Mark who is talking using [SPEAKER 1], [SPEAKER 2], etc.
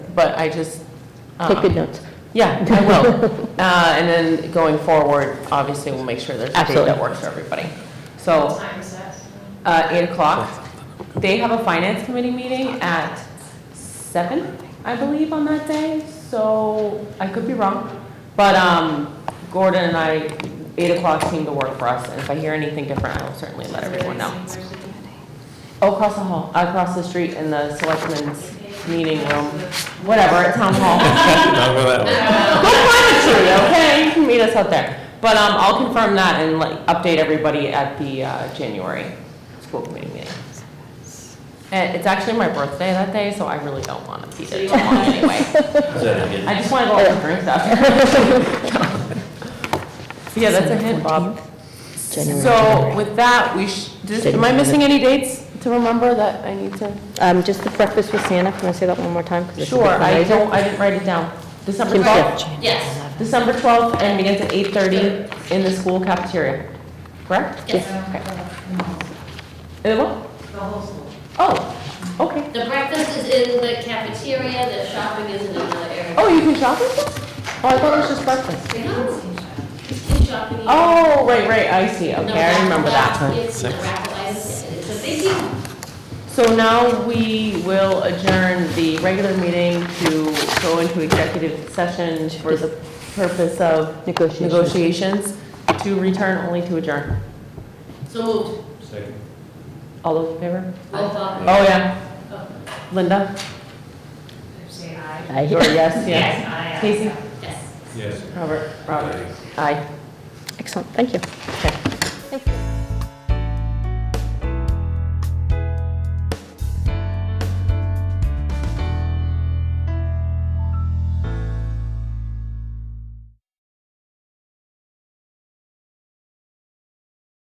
[SPEAKER 1] but I just. um,
[SPEAKER 2] Take good notes.
[SPEAKER 1] Yeah, I will. Uh, And then going forward, obviously, we'll make sure there's a date
[SPEAKER 2] Absolutely.
[SPEAKER 1] that works for everybody. So
[SPEAKER 3] Time is that?
[SPEAKER 1] uh, eight o'clock. They have a finance committee meeting at seven, I believe, on that day, so I could be wrong. But um, Gordon and I, eight o'clock seemed to work for us, and if I hear anything different, I will certainly let everyone know. Oh, Across the hall, across the street in the selectmen's meeting room, whatever, at town hall.
[SPEAKER 4] Not for that one.
[SPEAKER 1] Go find a tree, okay? You can meet us out there. But um, I'll confirm that and like update everybody at the uh, January school committee meeting. And it's actually my birthday that day, so I really don't want to be there too long anyway.
[SPEAKER 4] Is that a hidden-
[SPEAKER 1] I just want to go out and drink stuff. Yeah, that's a hint, Bob.
[SPEAKER 2] January,
[SPEAKER 1] So
[SPEAKER 2] January.
[SPEAKER 1] with that, we sh does- am I missing any dates to remember that I need to?
[SPEAKER 2] Um, Just the breakfast with Santa, can I say that one more time? 'Cause it's a big
[SPEAKER 1] Sure, I
[SPEAKER 2] fundraiser.
[SPEAKER 1] don't, I didn't write it down. December
[SPEAKER 2] Jim,
[SPEAKER 1] 12th?
[SPEAKER 2] Jim.
[SPEAKER 3] Yes.
[SPEAKER 1] December 12th and begins at 8:30 in the school cafeteria, correct?
[SPEAKER 3] Yes.
[SPEAKER 1] In the what?
[SPEAKER 3] The whole school.
[SPEAKER 1] Oh, okay.
[SPEAKER 3] The breakfast is in the cafeteria, the shopping is in another area.
[SPEAKER 1] Oh, you can shop with this? Oh, I thought it was just breakfast.
[SPEAKER 3] They don't see shopping. It's shopping.
[SPEAKER 1] Oh, right, right, I see,
[SPEAKER 3] The
[SPEAKER 1] okay, I remember that.
[SPEAKER 3] raffle is- The raffle is, it's a big deal.
[SPEAKER 1] So now we will adjourn the regular meeting to go into executive session for the purpose of
[SPEAKER 2] Negotiations.
[SPEAKER 1] negotiations, to return only to adjourn.
[SPEAKER 3] So
[SPEAKER 1] Oh.
[SPEAKER 3] moved.
[SPEAKER 4] Second.
[SPEAKER 1] All those in favor?
[SPEAKER 3] Roll call.
[SPEAKER 1] Oh, yeah. Linda?
[SPEAKER 3] Say aye.
[SPEAKER 2] I-
[SPEAKER 1] Or yes, yes.
[SPEAKER 3] Yes, aye.
[SPEAKER 1] Casey?
[SPEAKER 3] Yes.
[SPEAKER 4] Yes.
[SPEAKER 1] Robert?
[SPEAKER 4] Aye.
[SPEAKER 1] Aye.
[SPEAKER 2] Excellent, thank you.
[SPEAKER 1] Okay.
[SPEAKER 2] Thank you.